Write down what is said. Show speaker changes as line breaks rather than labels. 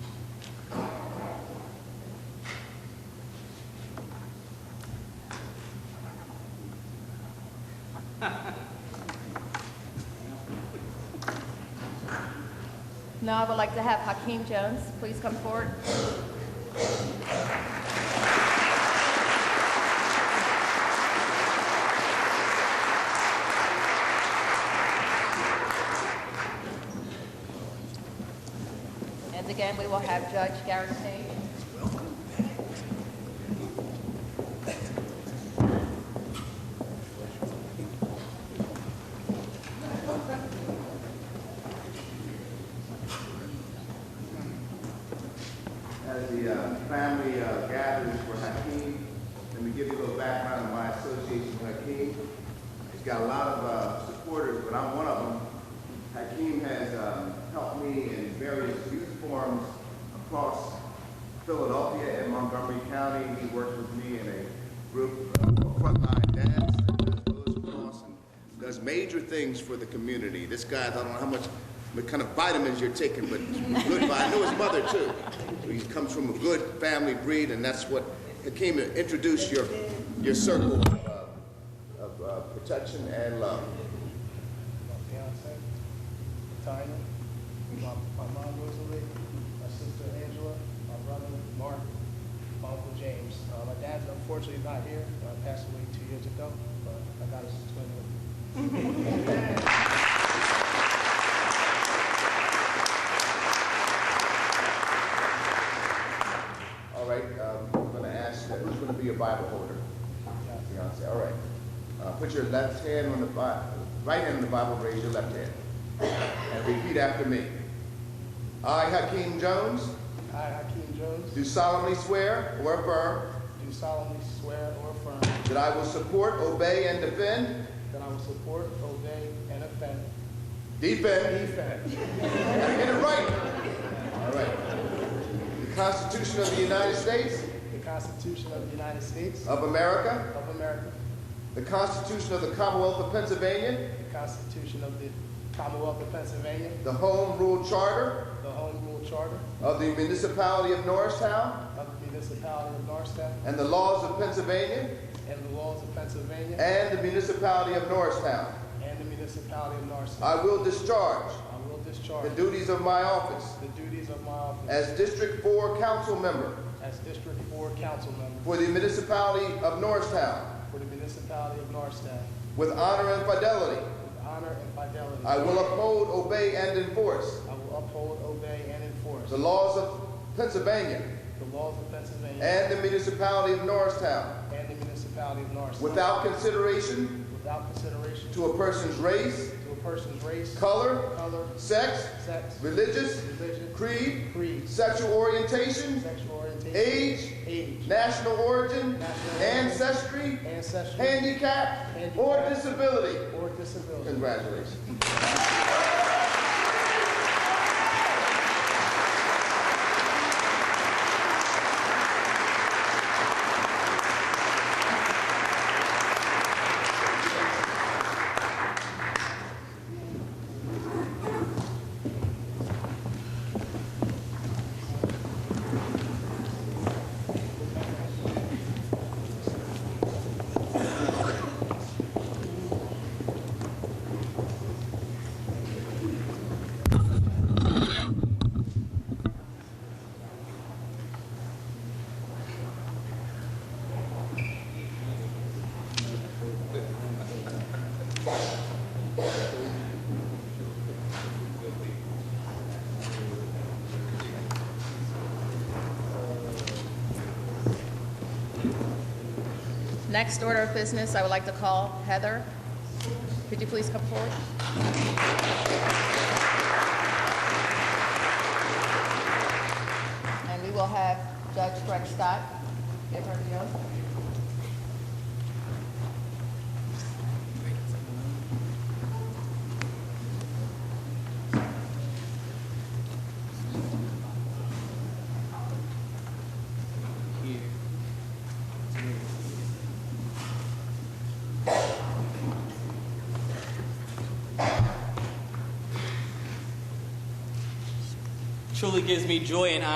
Now I would like to have Hakeem Jones please come forward. And again, we will have Judge Garrett Sage.
As the uh, family uh, gathers for Hakeem, let me give you a little background on my association with Hakeem. He's got a lot of uh, supporters, but I'm one of them. Hakeem has um, helped me in various youth forums across Philadelphia and Montgomery County. He works with me in a group of frontline dads as well as across and does major things for the community. This guy, I don't know how much, what kind of vitamins you're taking, but good. vi- I knew his mother too. So He comes from a good family breed, and that's what Hakeem introduced your your circle of, uh, of uh, protection and love.
my fiance, Tiny, my, my mom Rosalie, my sister Angela, my brother Mark, my uncle James. Uh, my dad's unfortunately not here, uh, passed away two years ago, but I got his twin with me.
All right, um, I'm going to ask that who's going to be your Bible holder? Beyonce. All right. Uh, put your left hand on the Bible, right hand on the Bible. Raise your left hand and repeat after me. I, Hakeem Jones,
I, Hakeem Jones,
do solemnly swear or affirm
do solemnly swear or affirm
that I will support, obey, and defend,
that I will support, obey, and defend,
defend,
defend
and get it right. All right. The Constitution of the United States
the Constitution of the United States
of America.
of America,
The Constitution of the Commonwealth of Pennsylvania,
the Constitution of the Commonwealth of Pennsylvania,
the Home Rule Charter
the Home Rule Charter
of the Municipality of Norristown,
of the Municipality of Norristown,
and the laws of Pennsylvania
and the laws of Pennsylvania
and the Municipality of Norristown.
and the municipality of Narsetown.
I will discharge
I will
the
discharge
duties of my office
the duties of my office
as District 4 Council Member
as District 4 Council Member
for the Municipality of Norristown
for the municipality of Narsetown
with honor and fidelity.
with honor and fidelity.
I will uphold, obey, and enforce
I will uphold, obey, and enforce
the laws of Pennsylvania
the laws of Pennsylvania
and the Municipality of Norristown
and the municipality of Narsetown
without consideration
without consideration
to a person's race,
to a person's race,
color,
color,
sex,
sex,
religious,
religion,
creed,
creed,
sexual orientation,
sexual orientation,
age,
age,
national origin,
National
ancestry,
ancestry,
handicap, or disability.
or disability.
Congratulations.
Next order of business, I would like to call Heather. Could you please come forward? And we will have Judge Greg Scott give her the oath.
Truly gives me joy and